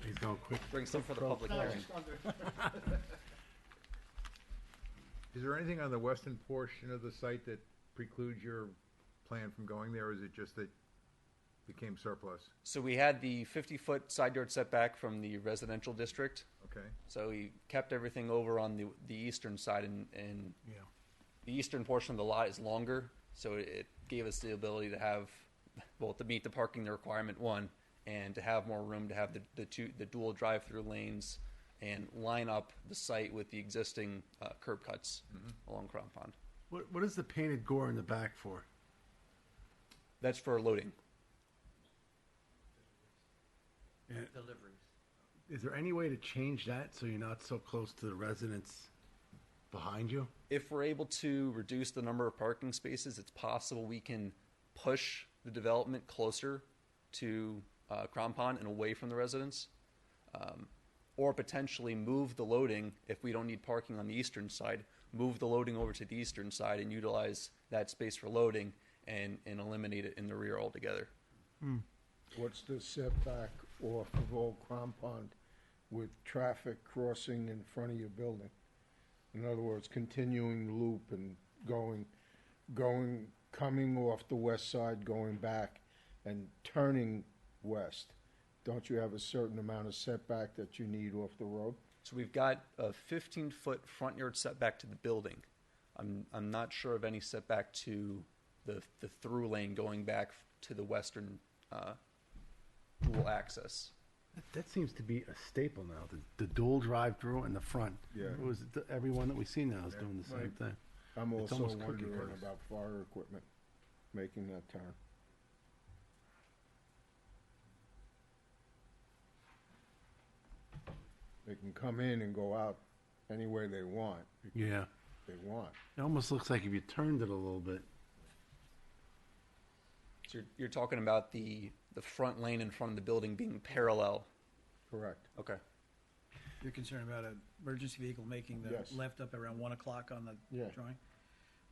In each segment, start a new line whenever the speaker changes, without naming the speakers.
Please go quick.
Bring some for the public hearing.
Is there anything on the western portion of the site that precludes your plan from going there, or is it just that it became surplus?
So we had the fifty-foot side yard setback from the residential district,
Okay,
so we kept everything over on the, the eastern side and, and
Yeah.
the eastern portion of the lot is longer, so it- it gave us the ability to have, well, to meet the parking requirement, one, and to have more room to have the, the two, the dual drive-through lanes and line up the site with the existing uh, curb cuts along Crown Pond.
What, what is the painted gore in the back for?
That's for loading.
Is there any way to change that so you're not so close to the residents behind you?
if we're able to reduce the number of parking spaces, it's possible we can push the development closer to uh, Crown Pond and away from the residents. Um, or potentially move the loading, if we don't need parking on the eastern side, move the loading over to the eastern side and utilize that space for loading and, and eliminate it in the rear altogether.
What's the setback off of Old Crom Pond with traffic crossing in front of your building? In other words, continuing the loop and going, going, coming off the west side, going back and turning west. Don't you have a certain amount of setback that you need off the road?
So we've got a 15 foot front yard setback to the building. I'm, I'm not sure of any setback to the, the through lane going back to the western uh, dual access.
That- That seems to be a staple now, the, the dual drive-through in the front.
Yeah.
It was, the- everyone that we see now is doing the same
Right.
thing.
I'm
It's
also
almost cookie
wondering
cutters.
about fire equipment making that turn. They can come in and go out any way they want,
Yeah.
they want.
It almost looks like if you turned it a little bit,
So you're, you're talking about the, the front lane in front of the building being parallel.
Correct.
Okay.
You're concerned about an emergency vehicle making the
Yes.
left up around one o'clock on the
Yeah.
drawing?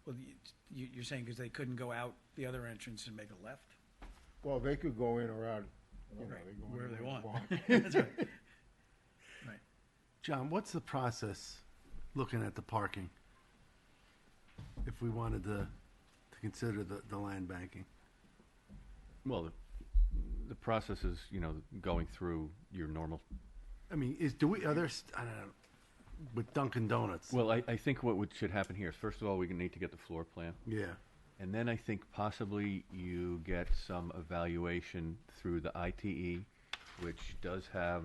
Well, you- you, you're saying because they couldn't go out the other entrance and make a left?
Well, they could go in or out, you know,
Right,
Oh, they go in
wherever they
or out.
want. That's right. Right.
John, what's the process looking at the parking? If we wanted to, to consider the, the land banking?
Well, the, the process is, you know, going through your normal,
I mean, is, do we, others, I don't know, with Dunkin' Donuts?
well, I, I think what would, should happen here is, first of all, we need to get the floor plan.
Yeah,
And then I think possibly you get some evaluation through the ITE, which does have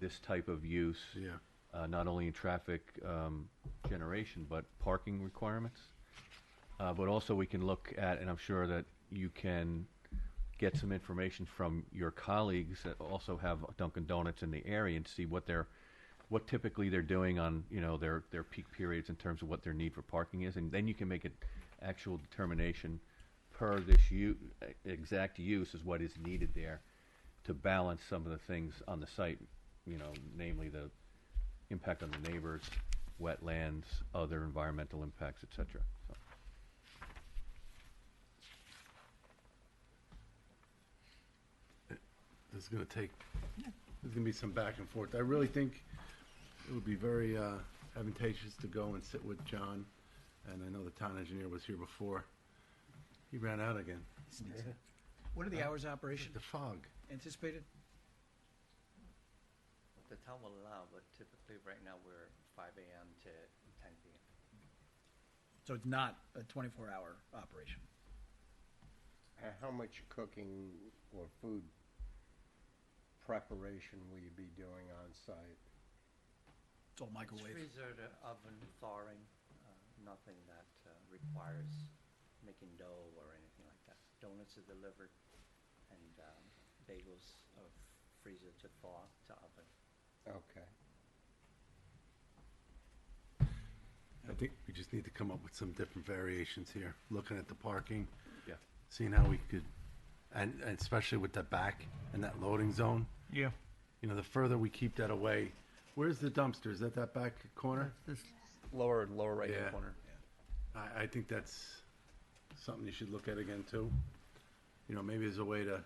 this type of use.
Yeah.
Uh, not only in traffic, um, generation, but parking requirements. Uh, but also we can look at, and I'm sure that you can get some information from your colleagues that also have Dunkin' Donuts in the area and see what they're, what typically they're doing on, you know, their, their peak periods in terms of what their need for parking is. And then you can make an actual determination per this u, exact use is what is needed there to balance some of the things on the site, you know, namely the impact on the neighbors, wetlands, other environmental impacts, et cetera. So-
this is gonna take, there's gonna be some back and forth. I really think it would be very uh, advantageous to go and sit with John, and I know the town engineer was here before. He ran out again.
What are the hours of operation
The fog.
anticipated?
The town will allow, but typically right now we're five AM to ten PM.
So it's not a twenty-four hour operation?
Uh, How much cooking or food preparation will you be doing on site?
It's all
It's
microwave?
freezer to oven thawing, uh, nothing that uh, requires making dough or anything like that. Donuts are delivered and um, bagels are freezer to thaw to oven.
Okay.
I think we just need to come up with some different variations here, looking at the parking.
Yeah.
Seeing how we could, and, and especially with the back and that loading zone.
Yeah,
You know, the further we keep that away, where's the dumpster? Is that that back corner?
Lower and lower right
Yeah.
hand corner.
I, I think that's something you should look at again too. You know, maybe as a way to,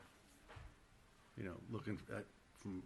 you know, looking at, from